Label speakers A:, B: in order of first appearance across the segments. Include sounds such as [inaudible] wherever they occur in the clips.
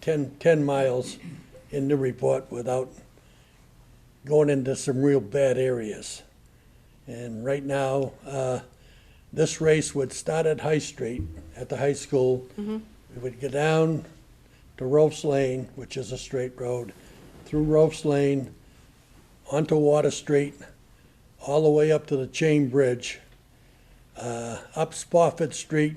A: 10, 10 miles in Newburyport without going into some real bad areas. And right now, uh, this race would start at High Street, at the high school. It would go down to Ropes Lane, which is a straight road, through Ropes Lane, onto Water Street, all the way up to the Chain Bridge, uh, up Spofford Street,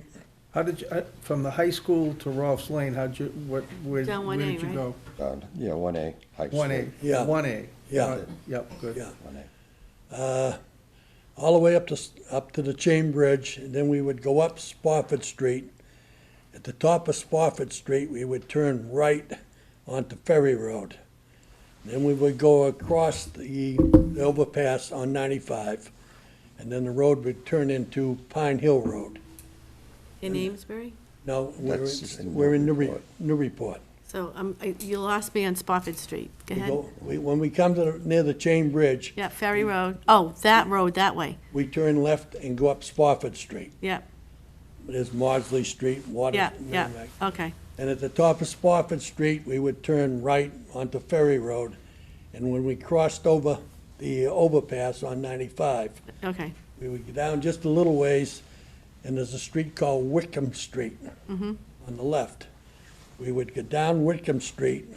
B: How did you, uh, from the high school to Rolfs Lane, how'd you, what, where,
C: Down
B: where
C: 1A,
B: did you
C: right?
B: go?
D: Uh, Yeah, one A. High
B: One A,
D: Street.
A: Yeah.
B: one A.
A: Yeah.
B: Yep, good.
A: yeah.
D: One A.
A: uh, all the way up to, up to the Chain Bridge, and then we would go up Spofford Street. At the top of Spofford Street, we would turn right onto Ferry Road. Then we would go across the the overpass on 95, and then the road would turn into Pine Hill Road.
C: In Amesbury?
A: No, we're,
D: That's in
A: we're in Newbury,
D: Newburyport.
A: Newburyport.
C: So um, I- you lost me on Spofford Street. Go
A: We
C: ahead.
A: go- we- When we come to, the- near the Chain Bridge,
C: Yeah, Ferry Road. Oh, that road, that way.
A: we turn left and go up Spofford Street.
C: Yeah,
A: There's Maudsley Street, Water.
C: yeah, yeah. Okay,
A: And at the top of Spofford Street, we would turn right onto Ferry Road. And when we crossed over the overpass on 95,
C: okay.
A: we would go down just a little ways, and there's a street called Wickham Street on the left. We would go down Wickham Street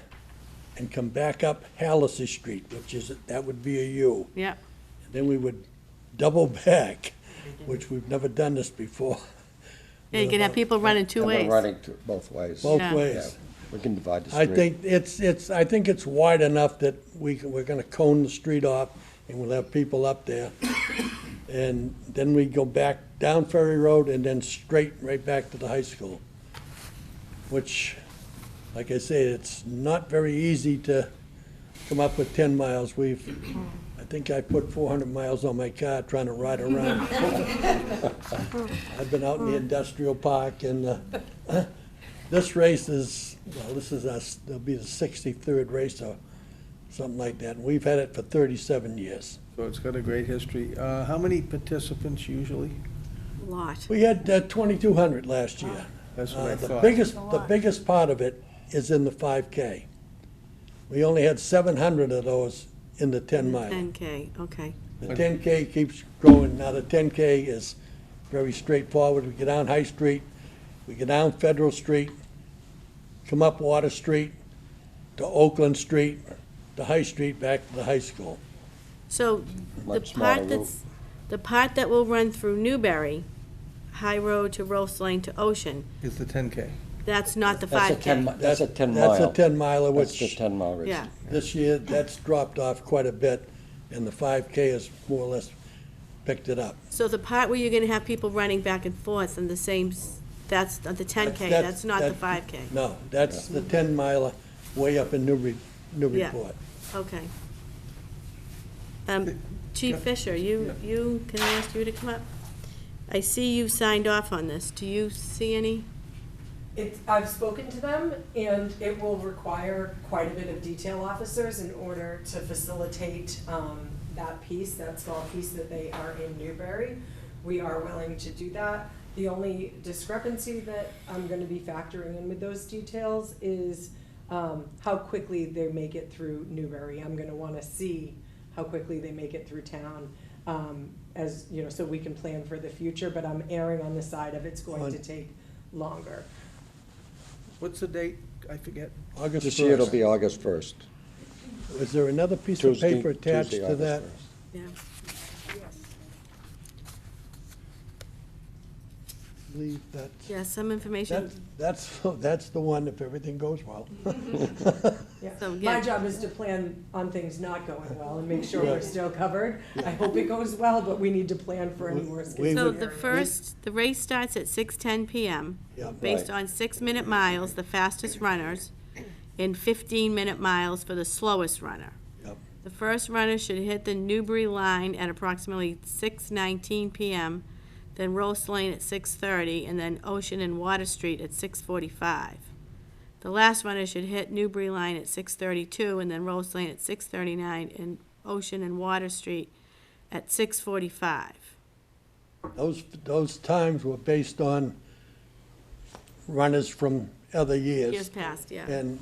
A: and come back up Hallacy Street, which is, that would be a U.
C: Yeah,
A: Then we would double back, which we've never done this before,
C: yeah. You can have people running two
D: And we're
C: ways.
D: Running to both ways.
A: both
C: Yeah.
A: ways.
D: Yeah, We can divide the
A: I
D: street.
A: think it's, it's, I think it's wide enough that we, can- we're gonna cone the street off, and we'll have people up there. And then we go back down Ferry Road and then straight right back to the high school. Which, like I say, it's not very easy to come up with ten miles. We've, I think I put four hundred miles on my car trying to ride around. I've been out in the industrial park and, uh, this race is, well, this is us, it'll be the sixty-third race or something like that. And We've had it for thirty-seven years.
B: So it's got a great history. Uh, how many participants usually?
C: Lot.
A: We had uh, twenty-two hundred last year.
B: That's
A: Uh,
B: what I
A: The
B: thought.
A: biggest, the biggest part of it is in the five K. We only had seven hundred of those in the ten mile.
C: 10K, okay.
A: The ten K keeps growing. Now, the ten K is very straightforward. We get down High Street, we get down Federal Street, come up Water Street, to Oakland Street, to High Street, back to the high school.
C: So the
D: Much smaller
C: part
D: route.
C: that's, the part that will run through Newberry, High Road to Rose Lane to Ocean,
B: Is the ten K?
C: that's not the
D: That's a 10 mi-
C: 5K.
D: That's a ten mile.
A: That's a ten miler,
D: That's the
A: which
D: ten mile race.
C: Yeah,
A: this year, that's dropped off quite a bit, and the five K has more or less picked it up.
C: so the part where you're gonna have people running back and forth on the same, s- that's the 10K,
A: That's-
C: that's not the
A: that-
C: 5K.
A: No, that's the ten miler way up in Newbury, Newburyport.
C: Okay. Um, Chief Fisher, you, you, can I ask you to come up? I see you signed off on this. Do you see any?
E: It's, I've spoken to them and it will require quite a bit of detail officers in order to facilitate, um, that piece, that small piece that they are in Newbury. We are willing to do that. The only discrepancy that I'm gonna be factoring in with those details is, um, how quickly they make it through Newbury. I'm gonna wanna see how quickly they make it through town, um, as, you know, so we can plan for the future, but I'm erring on the side of it's going to take longer.
B: What's the date? I forget.
A: August
D: This year it'll
A: first.
D: be August first.
A: Is there another piece of
D: Tuesday.
A: paper attached
D: Tuesday,
A: to
D: August
A: that?
D: 1st.
C: Yeah.
A: Leave that.
C: Yeah, some information.
A: That's, that's, [laughs] that's the one if everything goes well.
C: Mm-hmm.
A: [laughs]
D: [laughs]
E: Yeah,
C: So, yeah.
E: my job is to plan on things not going well and make sure we're
A: Right.
E: still covered. I hope it goes well, but we need to plan for any
A: We-
E: worst
A: we
E: case
C: So
E: scenario.
C: the first, the race starts at 6:10 PM,
A: Yeah.
C: based
D: Right.
C: on six-minute miles, the fastest runners, and 15-minute miles for the slowest runner.
A: Yep.
C: The first runner should hit the Newbury line at approximately 6:19 PM, then Rose Lane at 6:30, and then Ocean and Water Street at 6:45. The last runner should hit Newbury line at 6:32, and then Rose Lane at 6:39, and Ocean and Water Street at 6:45.
A: Those, those times were based on runners from other years.
C: Years past, yeah.
A: And